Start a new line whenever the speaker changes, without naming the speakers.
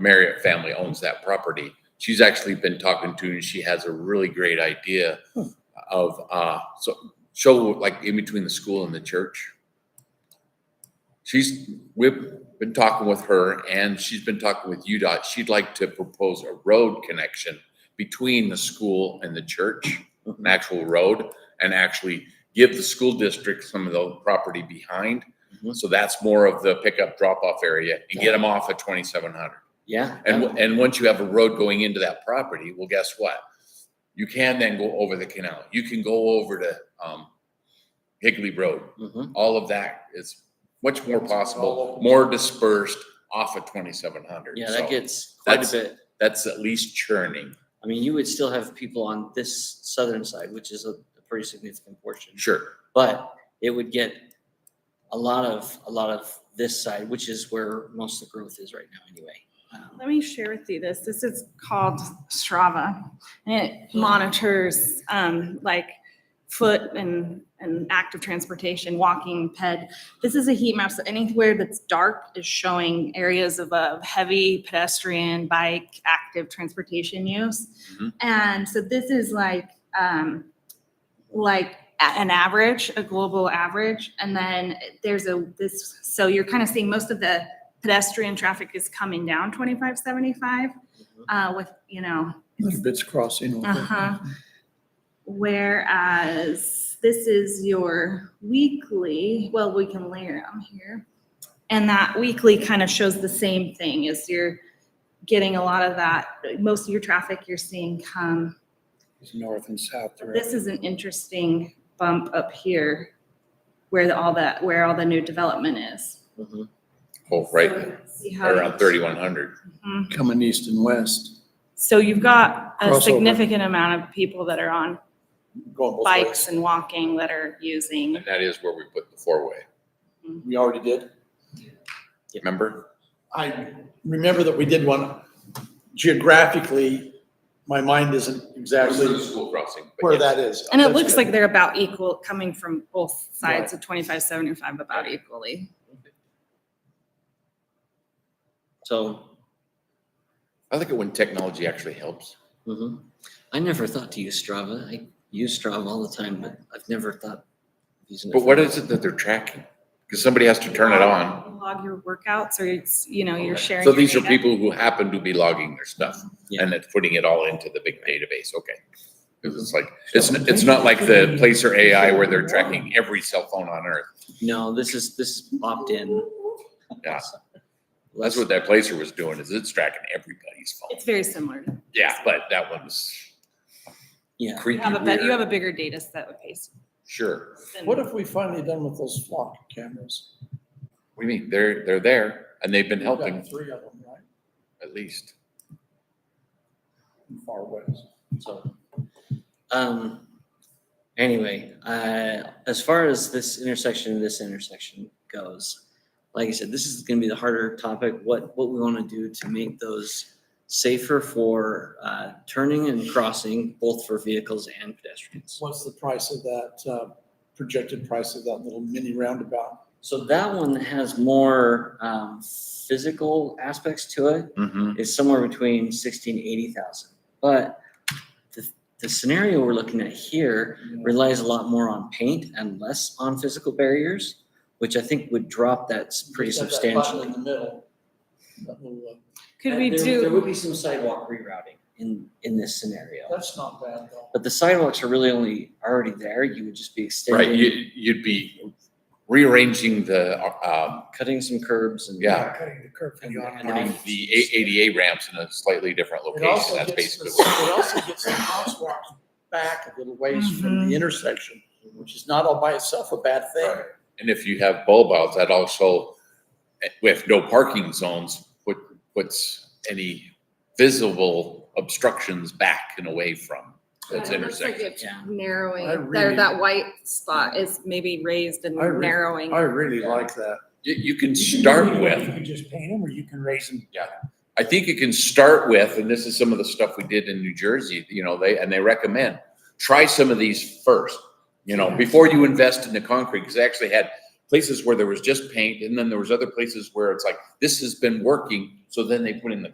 Marriott family owns that property. She's actually been talking to, and she has a really great idea of, uh, so, show like in between the school and the church. She's, we've been talking with her and she's been talking with UDOT. She'd like to propose a road connection between the school and the church, an actual road, and actually give the school district some of the property behind.
Mhm.
So that's more of the pickup drop off area and get them off at twenty-seven hundred.
Yeah.
And, w- and once you have a road going into that property, well, guess what? You can then go over the canal. You can go over to, um, Higley Road.
Mhm.
All of that is much more possible, more dispersed off of twenty-seven hundred.
Yeah, that gets quite a
that's-
bit.
That's at least churning.
I mean, you would still have people on this southern side, which is a a pretty significant portion.
Sure.
But it would get a lot of, a lot of this side, which is where most of the growth is right now anyway. Um,
Let me share with you this. This is called Strava and it monitors um, like foot and, and active transportation, walking, ped. This is a heat map. So anywhere that's dark is showing areas of uh, heavy pedestrian, bike, active transportation use.
Mhm.
And so this is like, um, like a- an average, a global average. And then there's a, this, so you're kind of seeing most of the pedestrian traffic is coming down twenty-five seventy-five,
Mm-hmm.
uh, with, you know,
Like Bits Crossing. over.
uh-huh. Whereas this is your weekly, well, we can layer them here. And that weekly kind of shows the same thing as you're getting a lot of that, most of your traffic you're seeing come.
It's North and south. they're-
This is an interesting bump up here where the, all that, where all the new development is.
mhm.
Oh, right,
So see how-
around thirty-one hundred.
Mhm.
Coming east and west.
So you've got a
Crossover.
significant amount of people that are on
going both ways.
bikes and walking that are using.
And that is where we put the four-way,
We already did.
remember?
I remember that we did one geographically. My mind isn't
Through the
exactly
School crossing. but
where
yes.
that is.
And it
That's
looks
good.
like they're about equal, coming from both sides of twenty-five seventy-five about equally.
So,
I like it when technology actually helps.
mhm. I never thought to use Strava. I use Strava all the time, but I've never thought. of using it
But
for
what
that.
is it that they're tracking? Because somebody has to
Uh,
turn it on.
Log your workouts or it's, you know, you're
Okay.
sharing.
So
your
these are
data.
people who happen to be logging their stuff
Yeah.
and it's putting it all into the big database, okay? 'Cause it's like, it's, n- it's not like the Placer AI where they're tracking every cell phone on earth.
No, this is, this is opt-in.
Yeah.
Less-
That's what that Placer was doing, is it's tracking everybody's phone.
It's very similar. to-
Yeah, but that one's
Yeah,
You
creepy
have a, bet- you have
weird.
a bigger data set of pace.
Sure.
than-
What have we finally done with those flock cameras?
We mean, they're, they're there and they've been
We've got
helping
Three of them, right?
at least.
In Far west.
so. Um, anyway, uh, as far as this intersection, and this intersection goes, like I said, this is gonna be the harder topic, what, what we wanna do to make those safer for, uh, turning and crossing, both for vehicles and pedestrians.
What's the price of that, uh, projected price of that little mini roundabout?
So that one has more, um, physical aspects to it.
Mm-hmm.
is somewhere between sixty and eighty thousand. But the, the scenario we're looking at here relies a lot more on paint and less on physical barriers, which I think would drop that s- pretty
Just have that button
substantially.
In the middle. That little, uh,
Could
Uh,
we
there- There would
do,
be some sidewalk rerouting in, in this scenario.
That's not bad though.
But the sidewalks are really only already there. You would just be
Right, you,
extending,
you'd be rearranging the, uh,
cutting some curbs and.
Yeah.
Cutting the curb for
And-
the
and
on-ramp.
um, the A- ADA ramps in a slightly different
It
location.
also
That's
gets the-
basically what.
It also gets the crosswalks back a little ways from
Mhm.
the intersection, which is not all by itself a bad thing.
And if you have bulb outs, that also, eh, with no parking zones, put, puts any visible obstructions back and away from those
Yeah, it looks like
intersections.
it's
Yeah.
I
narrowing, there,
really-
that white spot is maybe raised and
I re-
narrowing.
really
like
that.
You, you can start
You
with,
can just paint them or you can raise them.
I think you can start with, and this is some of the stuff we did in New Jersey, you know, they, and they recommend, try some of these first. You know, before you invest in the concrete, because they actually had places where there was just paint, and then there was other places where it's like, this has been working, so then they put in the